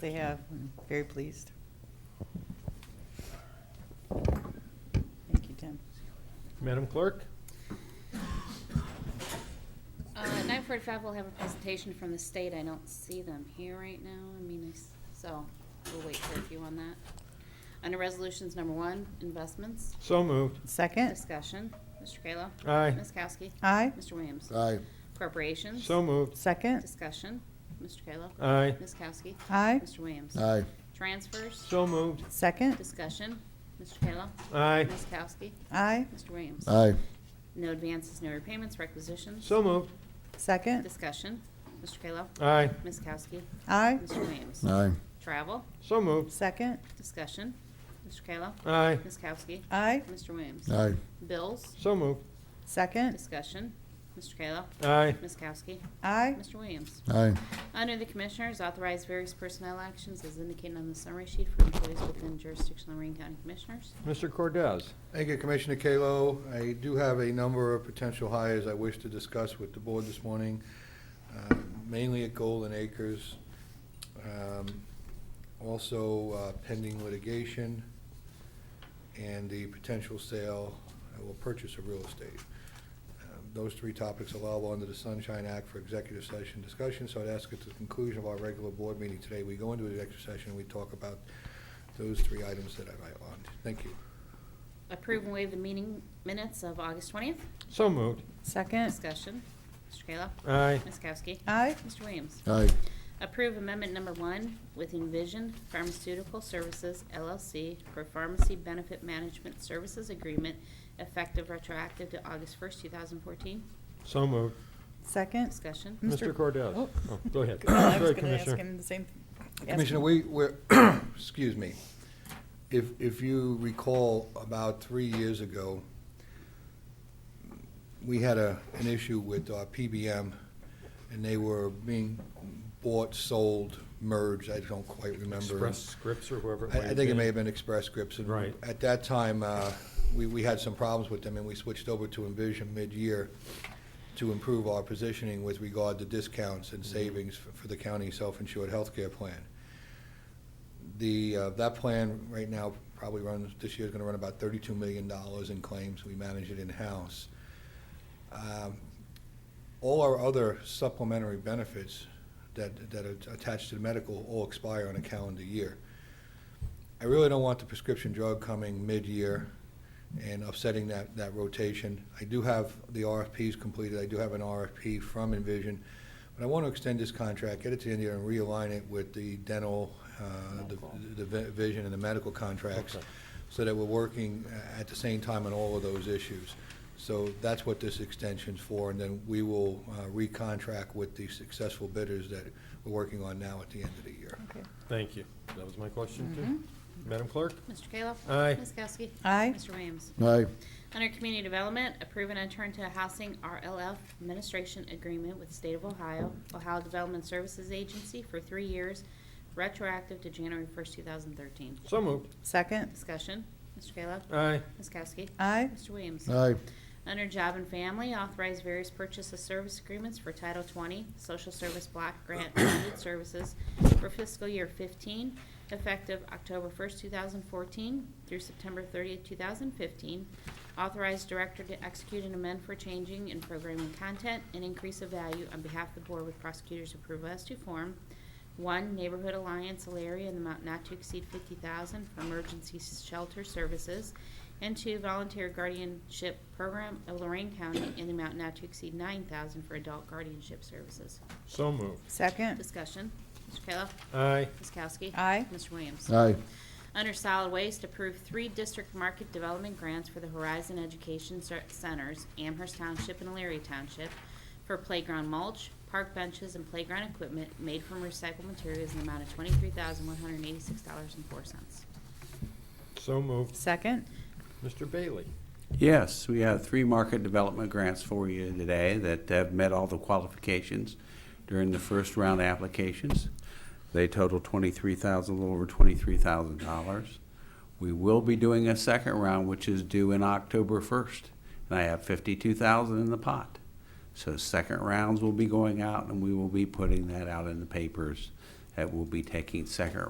They have, I'm very pleased. Thank you, Tim. Madam Clerk? Uh, Nine forty-five, we'll have a presentation from the state. I don't see them here right now. I mean, I s- so we'll wait for a few on that. Under resolutions, number one, investments, So moved. Second, discussion. Mr. Kayla. Aye. Ms. Kowski. aye. Mr. Williams. Aye, Corporations. So moved. Second, Discussion. Mr. Kayla. Aye. Ms. Kowski. aye. Mr. Williams. aye, Transfers. So moved. Second, Discussion. Mr. Kayla. Aye. Ms. Kowski. aye. Mr. Williams. aye, No advances, no repayments, requisitions. So moved. Second, Discussion. Mr. Kayla. Aye. Ms. Kowski. aye. Mr. Williams. aye, Travel, So moved. Second, discussion, Mr. Kayla, Aye. Ms. Kowski, aye. Mr. Williams. aye, Bills, So moved. Second, discussion, Mr. Kayla, Aye. Ms. Kowski, aye. Mr. Williams. aye, Under the Commissioners, authorize various personnel actions as indicated on the summary sheet for employees within jurisdiction of Lorraine County Commissioners. Mr. Cordez? Thank you, Commissioner Kalo. I do have a number of potential hires I wish to discuss with the board this morning, uh, mainly at Golden Acres, um, also uh, pending litigation, and the potential sale uh, or purchase of real estate. Um, Those three topics allowable under the Sunshine Act for executive session discussion, so I'd ask at the conclusion of our regular board meeting today, we go into executive session, we talk about those three items that I've outlined. Thank you. Approve and waive the meeting minutes of August 20th. So moved. Second, Discussion, Mr. Kayla, Aye. Ms. Kowski, aye. Mr. Williams. aye, Approve Amendment Number One with Envision Pharmaceutical Services LLC for Pharmacy Benefit Management Services Agreement effective retroactive to August 1st, 2014. So moved. Second. Discussion. Mr. Cordez? Oh. Oh, Go ahead. I was Sorry, going to ask Commissioner. him the same. ask Commissioner, him. we, we're, excuse me, if, if you recall, about three years ago, we had a, an issue with uh, our PBM, and they were being bought, sold, merged, I don't quite remember. Express Scripts or whoever. I, I think it may have been Express Scripts. and Right. At that time, uh, we, we had some problems with them, and we switched over to Envision mid-year to improve our positioning with regard to discounts and savings for for the county self-insured healthcare plan. The, uh, that plan right now probably runs, this year's gonna run about thirty-two million dollars in claims. We manage it in-house. Um, All our other supplementary benefits that, that are attached to the medical all expire on a calendar year. I really don't want the prescription drug coming mid-year and upsetting that, that rotation. I do have the RFPs completed, I do have an RFP from Envision, but I want to extend this contract, get it to India, and realign it with the dental, uh, the the vi- vision and the medical contracts, Okay. so that we're working uh, at the same time on all of those issues. So that's what this extension's for, and then we will uh, recontract with the successful bidders that we're working on now at the end of the year. Okay. Thank you. That was my question, Mm-hmm. too. Madam Clerk? Mr. Kayla. Aye. Ms. Kowski. Aye. Mr. Williams. aye, Under Community Development, approve and enter into a housing RLF administration agreement with State of Ohio, Ohio Development Services Agency for three years, retroactive to January 1st, 2013. So moved. Second, Discussion. Mr. Kayla. Aye. Ms. Kowski. aye. Mr. Williams. aye, Under Job and Family, authorize various purchase of service agreements for Title 20 Social Service Block Grant Funded Services for fiscal year 15, effective October 1st, 2014 through September 30th, 2015. Authorize director to execute and amend for changing in programming content and increase of value on behalf of the board with prosecutors approval as to form. One, Neighborhood Alliance Alaria in the amount not to exceed fifty thousand for emergency shelter services. And two, Volunteer Guardianship Program of Lorraine County in the amount not to exceed nine thousand for adult guardianship services. So moved. Second, Discussion, Mr. Kayla, Aye. Ms. Kowski. Aye. Mr. Williams. aye, Under solid waste, approve three district market development grants for the Horizon Education Cer- Centers, Amherst Township and Elyria Township, for playground mulch, park benches, and playground equipment made from recycled materials in the amount of twenty-three thousand one hundred and eighty-six dollars and four cents. So moved. second, Mr. Bailey? Yes, we have three market development grants for you today that have met all the qualifications during the first round applications. They total twenty-three thousand, a little over twenty-three thousand dollars. We will be doing a second round, which is due in October first, and I have fifty-two thousand in the pot. So second rounds will be going out, and we will be putting that out in the papers that will be taking second